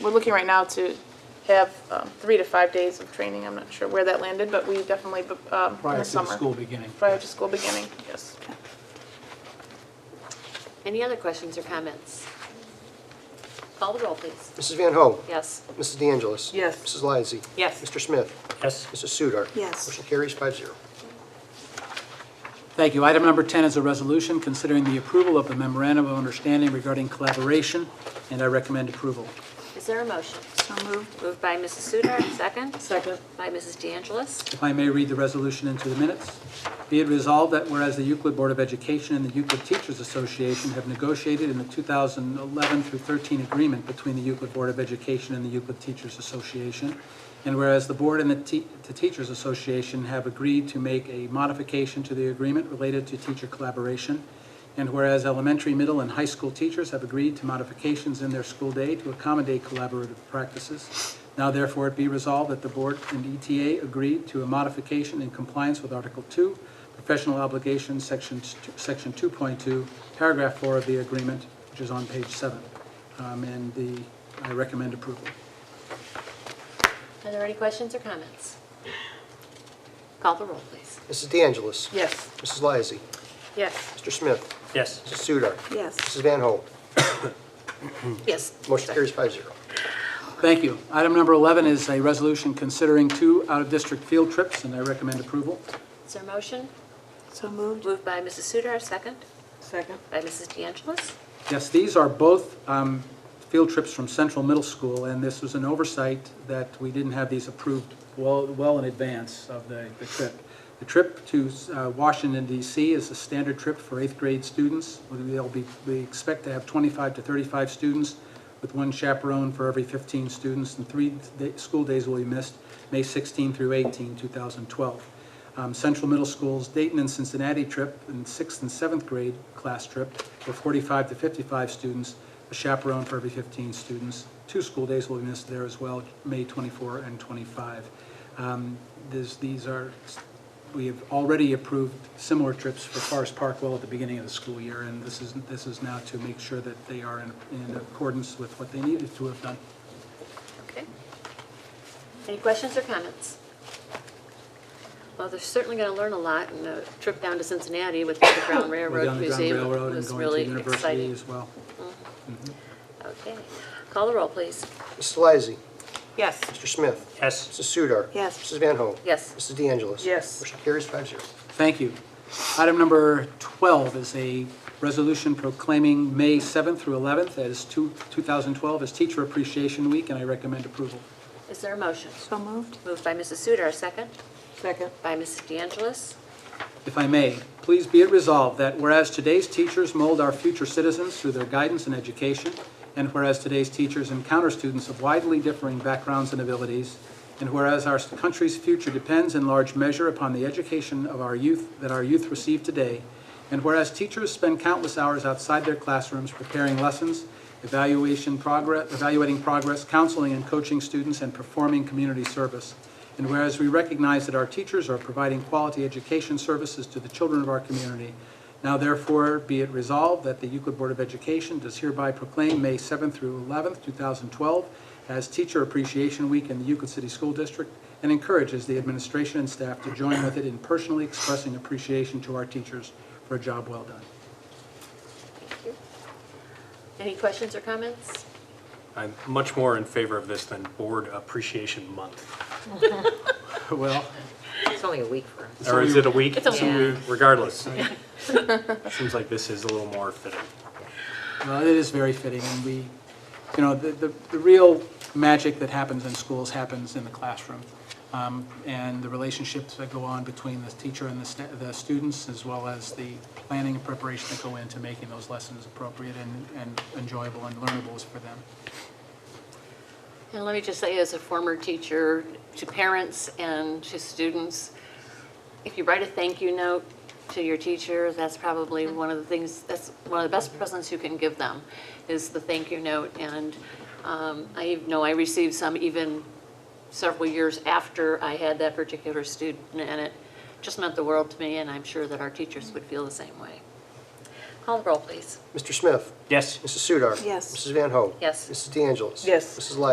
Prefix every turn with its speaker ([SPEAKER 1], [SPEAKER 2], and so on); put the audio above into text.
[SPEAKER 1] We're looking right now to have um, three to five days of training. I'm not sure where that landed, but we definitely, bu- um, in the
[SPEAKER 2] prior to the
[SPEAKER 1] summer.
[SPEAKER 2] school beginning.
[SPEAKER 1] Prior to school beginning, yes.
[SPEAKER 3] Any other questions or comments? Call the roll, please.
[SPEAKER 4] Mrs. Van Ho.
[SPEAKER 3] Yes.
[SPEAKER 4] Mrs. De Angelis.
[SPEAKER 5] Yes.
[SPEAKER 4] Mrs. Lysy.
[SPEAKER 5] Yes.
[SPEAKER 4] Mr. Smith.
[SPEAKER 6] yes,
[SPEAKER 4] Mrs. Sudar.
[SPEAKER 7] Yes.
[SPEAKER 4] Motion carries five zero.
[SPEAKER 2] Thank you. Item number 10 is a resolution considering the approval of the memorandum of understanding regarding collaboration, and I recommend approval.
[SPEAKER 3] Is there a motion?
[SPEAKER 7] So moved.
[SPEAKER 3] Moved by Mrs. Sudar, second.
[SPEAKER 5] Second.
[SPEAKER 3] By Mrs. De Angelis.
[SPEAKER 2] If I may read the resolution into the minutes. Be it resolved that whereas the Euclid Board of Education and the Euclid Teachers Association have negotiated in the 2011 through 13 agreement between the Euclid Board of Education and the Euclid Teachers Association, and whereas the board and the te- the Teachers Association have agreed to make a modification to the agreement related to teacher collaboration, and whereas elementary, middle, and high school teachers have agreed to modifications in their school day to accommodate collaborative practices, now therefore it be resolved that the board and ETA agree to a modification in compliance with Article 2, Professional Obligations, Section Section 2.2, Paragraph 4 of the agreement, which is on page 7. Um, And the, I recommend approval.
[SPEAKER 3] Are there any questions or comments? Call the roll, please.
[SPEAKER 4] Mrs. De Angelis.
[SPEAKER 5] Yes.
[SPEAKER 4] Mrs. Lysy.
[SPEAKER 3] Yes.
[SPEAKER 4] Mr. Smith.
[SPEAKER 6] yes.
[SPEAKER 4] Mrs. Sudar.
[SPEAKER 7] Yes.
[SPEAKER 4] Mrs. Van Ho.
[SPEAKER 3] Yes.
[SPEAKER 4] Motion carries five zero.
[SPEAKER 2] Thank you. Item number 11 is a resolution considering two out-of-district field trips, and I recommend approval.
[SPEAKER 3] Is there a motion?
[SPEAKER 7] So moved.
[SPEAKER 3] Moved by Mrs. Sudar, second.
[SPEAKER 5] Second.
[SPEAKER 3] By Mrs. De Angelis.
[SPEAKER 2] Yes, these are both um, field trips from Central Middle School, and this was an oversight that we didn't have these approved well, well in advance of the the trip. The trip to uh, Washington DC is a standard trip for eighth grade students. They'll be, we expect to have 25 to 35 students with one chaperone for every 15 students, and three day- school days will be missed, May 16 through 18, 2012. Um, Central Middle School's Dayton and Cincinnati trip and sixth and seventh grade class trip for 45 to 55 students, a chaperone for every 15 students. Two school days will be missed there as well, May 24 and 25. Um, this- These are, we have already approved similar trips for Forest Parkwell at the beginning of the school year, and this is, this is now to make sure that they are in in accordance with what they needed to have done.
[SPEAKER 3] Okay. Any questions or comments? Well, they're certainly going to learn a lot, and a trip down to Cincinnati with the Underground
[SPEAKER 2] We're
[SPEAKER 3] Railroad
[SPEAKER 2] down the Ground
[SPEAKER 3] Museum
[SPEAKER 2] Railroad and
[SPEAKER 3] was
[SPEAKER 2] going to
[SPEAKER 3] really
[SPEAKER 2] university
[SPEAKER 3] exciting.
[SPEAKER 2] as well.
[SPEAKER 3] Okay. Call the roll, please.
[SPEAKER 4] Mrs. Lysy.
[SPEAKER 5] Yes.
[SPEAKER 4] Mr. Smith.
[SPEAKER 6] Yes,
[SPEAKER 4] Mrs. Sudar.
[SPEAKER 7] Yes.
[SPEAKER 4] Mrs. Van Ho.
[SPEAKER 3] Yes.
[SPEAKER 4] Mrs. De Angelis.
[SPEAKER 5] Yes.
[SPEAKER 4] Motion carries five zero.
[SPEAKER 2] Thank you. Item number 12 is a resolution proclaiming May 7th through 11th as two- 2012 as Teacher Appreciation Week, and I recommend approval.
[SPEAKER 3] Is there a motion?
[SPEAKER 7] So moved.
[SPEAKER 3] Moved by Mrs. Sudar, second.
[SPEAKER 5] Second.
[SPEAKER 3] By Mrs. De Angelis.
[SPEAKER 2] If I may, please be it resolved that whereas today's teachers mold our future citizens through their guidance and education, and whereas today's teachers encounter students of widely differing backgrounds and abilities, and whereas our country's future depends in large measure upon the education of our youth that our youth receive today, and whereas teachers spend countless hours outside their classrooms preparing lessons, evaluation progress, evaluating progress, counseling and coaching students, and performing community service. And whereas we recognize that our teachers are providing quality education services to the children of our community, now therefore be it resolved that the Euclid Board of Education does hereby proclaim May 7th through 11th, 2012 as Teacher Appreciation Week in the Euclid City School District and encourages the administration and staff to join with it in personally expressing appreciation to our teachers for a job well done.
[SPEAKER 3] Thank you. Any questions or comments?
[SPEAKER 6] I'm much more in favor of this than Board Appreciation Month.
[SPEAKER 2] Well,
[SPEAKER 8] It's only a week for us.
[SPEAKER 6] Or is it a week?
[SPEAKER 3] It's a week.
[SPEAKER 6] Regardless. Seems like this is a little more fitting.
[SPEAKER 2] Well, it is very fitting, and we, you know, the, the the real magic that happens in schools happens in the classroom. Um, And the relationships that go on between the teacher and the, sta- the students, as well as the planning and preparation that go into making those lessons appropriate and, and enjoyable and learnables for them.
[SPEAKER 3] And let me just say, as a former teacher, to parents and to students, if you write a thank you note to your teacher, that's probably one of the things, that's one of the best presents you can give them, is the thank you note. And um, I know I received some even several years after I had that particular student, and it just meant the world to me, and I'm sure that our teachers would feel the same way. Call the roll, please.
[SPEAKER 4] Mr. Smith?
[SPEAKER 6] Yes.
[SPEAKER 4] Mrs. Sudar?
[SPEAKER 9] Yes.
[SPEAKER 4] Mrs. Van Ho?
[SPEAKER 3] Yes.
[SPEAKER 4] Mrs. De Angelis?
[SPEAKER 5] Yes.
[SPEAKER 4] Mrs. Lysy?